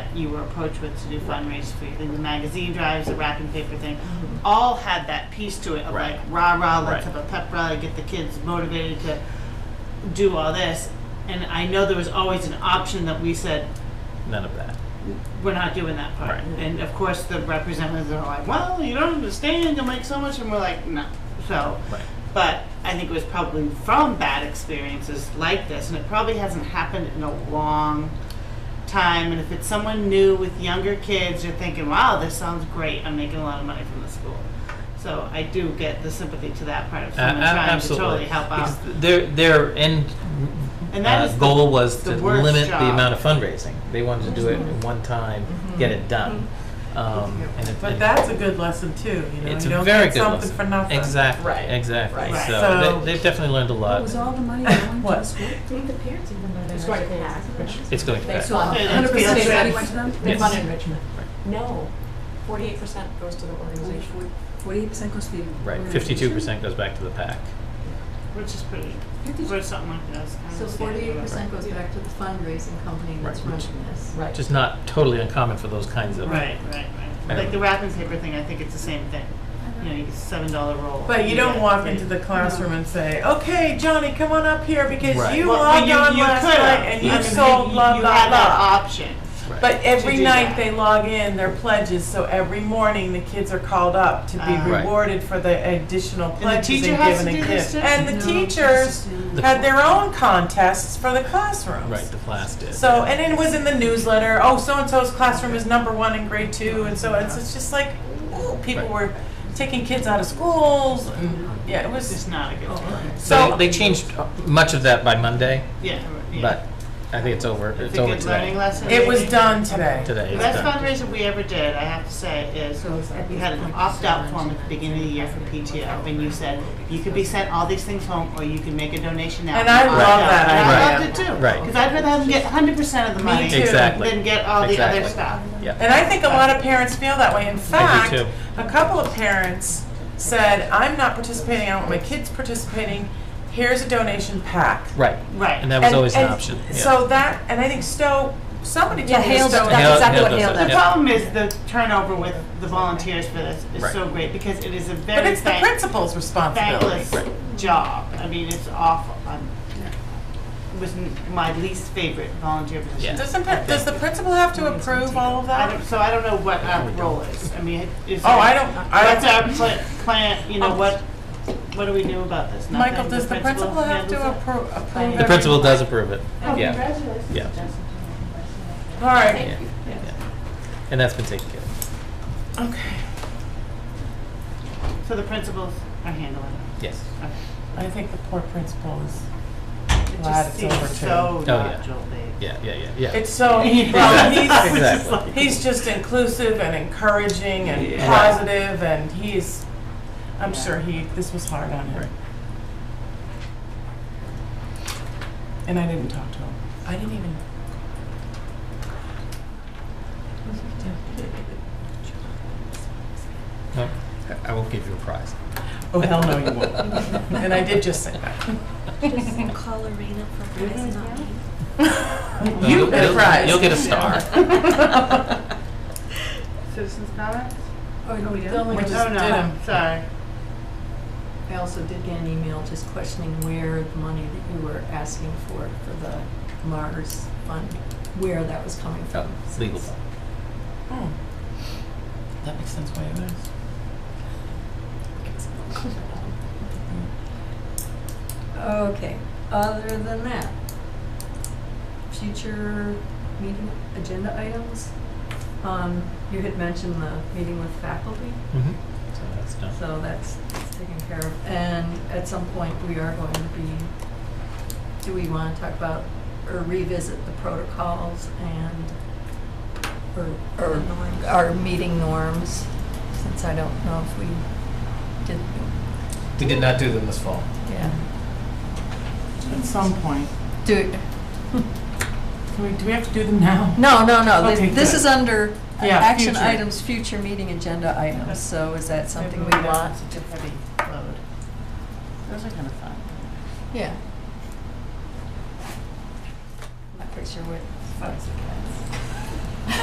that you were approached with to do fundraise for, the magazine drives, the wrapping paper thing, all had that piece to it of Right. like, rah, rah, let's Right. have a pep rally, get the kids motivated to do all this. And I know there was always an option that we said, None of that. we're not doing that part. Right. And of course, the representatives are like, well, you don't understand, you'll make so much, and we're like, no. So, Right. but I think it was probably from bad experiences like this, and it probably hasn't happened in a long time. And if it's someone new with younger kids, you're thinking, wow, this sounds great, I'm making a lot of money from the school. So I do get the sympathy to that part of A- a- someone trying absolutely. to totally help out. Because their their end And that uh, is the- goal was the to worst limit job. Mm-hmm. the amount of fundraising. They wanted to do it in one time, get it done. Um, and it, But and that's a good lesson too, you know, it's you a don't very get good something lesson. for nothing. Exactly. Right. Exactly. Right. So, So- they, they've definitely learned a lot. What was all the money that went to the What? school? think the parents even know that. It's our going to schools- pass, which- it's going to They pass. saw Yeah, hundred field percent trips. Money went to them? They Yes. fund enrichment. Right. No, forty-eight percent goes to the organization. Forty-eight percent goes to the. Right. Fifty-two percent goes back to the pack. Which is pretty, or something like that. So forty-eight percent goes back to the fundraising company that's Right, which- running this. Right. Which is not totally uncommon for those kinds of Right, right, right. Right. Like the wrapping paper thing, I think it's the same thing. You know, you get seven dollar roll. But you don't get walk three. into the classroom and say, okay, Johnny, come on up here because Right. you Well, logged you- on you last could have. night and I you mean, sold blah, you blah, had that blah. option. Right. But every do night that. they log in their pledges, so every morning the kids are called up to Ah. be Right. rewarded for the additional the pledges teacher and has given a to gift. do this too? And the teachers had their own contests for the classrooms. right. The class did. So, and it was in the newsletter, oh, so-and-so's classroom is number one in grade two, and so it's, it's just like, ooh, people Right. were taking kids out of schools, and, yeah, it It's was, just not a good plan. So so, they, they changed much of that by Monday, Yeah. yeah. but I think it's over. It's, It's a over good learning today. lesson. it was maybe. done today. Today. The it's best done. fundraiser we ever did, I have to say, is So it's like we had an opt-out form at the beginning of the year for PTO, and you said you could be sent all these things home, or you can make a donation now. And I opt love out. that And I idea. loved it too. Right. Because I'd rather have them get hundred percent of the money too. Exactly. than get all the other Exactly. stuff. Yeah. And I think a lot of parents feel that way. In fact, too. a couple of parents said, I'm not participating, I don't want my kids participating, here's a donation pack. Right. Right. And that was And- always an and option. Yeah. So that, and I think Stowe, somebody Yeah, told me Hale Stowe. does- That's exactly what does Hale that, does. The yeah. problem is the turnover with the volunteers for this is Right. so great because it is a But very it's the thank- principal's responsibility. thankless job. I mean, it's awful. I'm, it was n- my least favorite volunteer position. Yeah. Doesn't, pa- does the principal have to approve all of I that? don't, so I don't know what our role is. I mean, is Oh, there- I don't- I What's don't- our pla- plan? You know, what what do we do about this? Nothing? Oh. Michael, does the principal have to handles it? appro- approve? The principal everything? does approve it. Oh, Yeah. congratulations, Yeah. Justin. All right, Yeah. Yeah. And that's been taken care of. okay. So the principals are handling it. Yes. Okay. I think the poor principal is, It Glad just it's over seems too. so Oh, yeah. not Joel Dave. Yeah, yeah, yeah, yeah. it's so, Yeah. well, he's, Exactly. he's just inclusive and encouraging and Yeah. positive and he's, I'm Yeah. sure he, this was hard on Right. him. And I didn't talk to him. I didn't even. No, I- I will give you a prize. Oh, hell no, you won't. And I did just say that. Just call Arena for prize, not me. You You'll- get a you'll- prize. You'll get a star. Citizens comments? Oh, no, we The don't? only- We Oh, just did no, 'em. sorry. I also did get an email just questioning where the money that you were asking for, for the Mars fund, where that was coming Oh, from. it's legal. Hmm. That makes sense why it is. Okay, other than that, future meeting agenda items? Um, you had mentioned the meeting with faculty, Mhm. So that's done. so that's, that's taken care of. And at some point, we are going to be, do we want to talk about or revisit the protocols and, or, or our meeting norms? Since I don't know if we did, We did not do them this fall. yeah, At some point. do, Do we, do we have to do them now? No, no, no, Okay, This- this good. is under Yeah, action future. items, future meeting agenda items, so is that something we Maybe want? It's a heavy load. Those are kind of fun. Yeah. I'm not pretty sure what.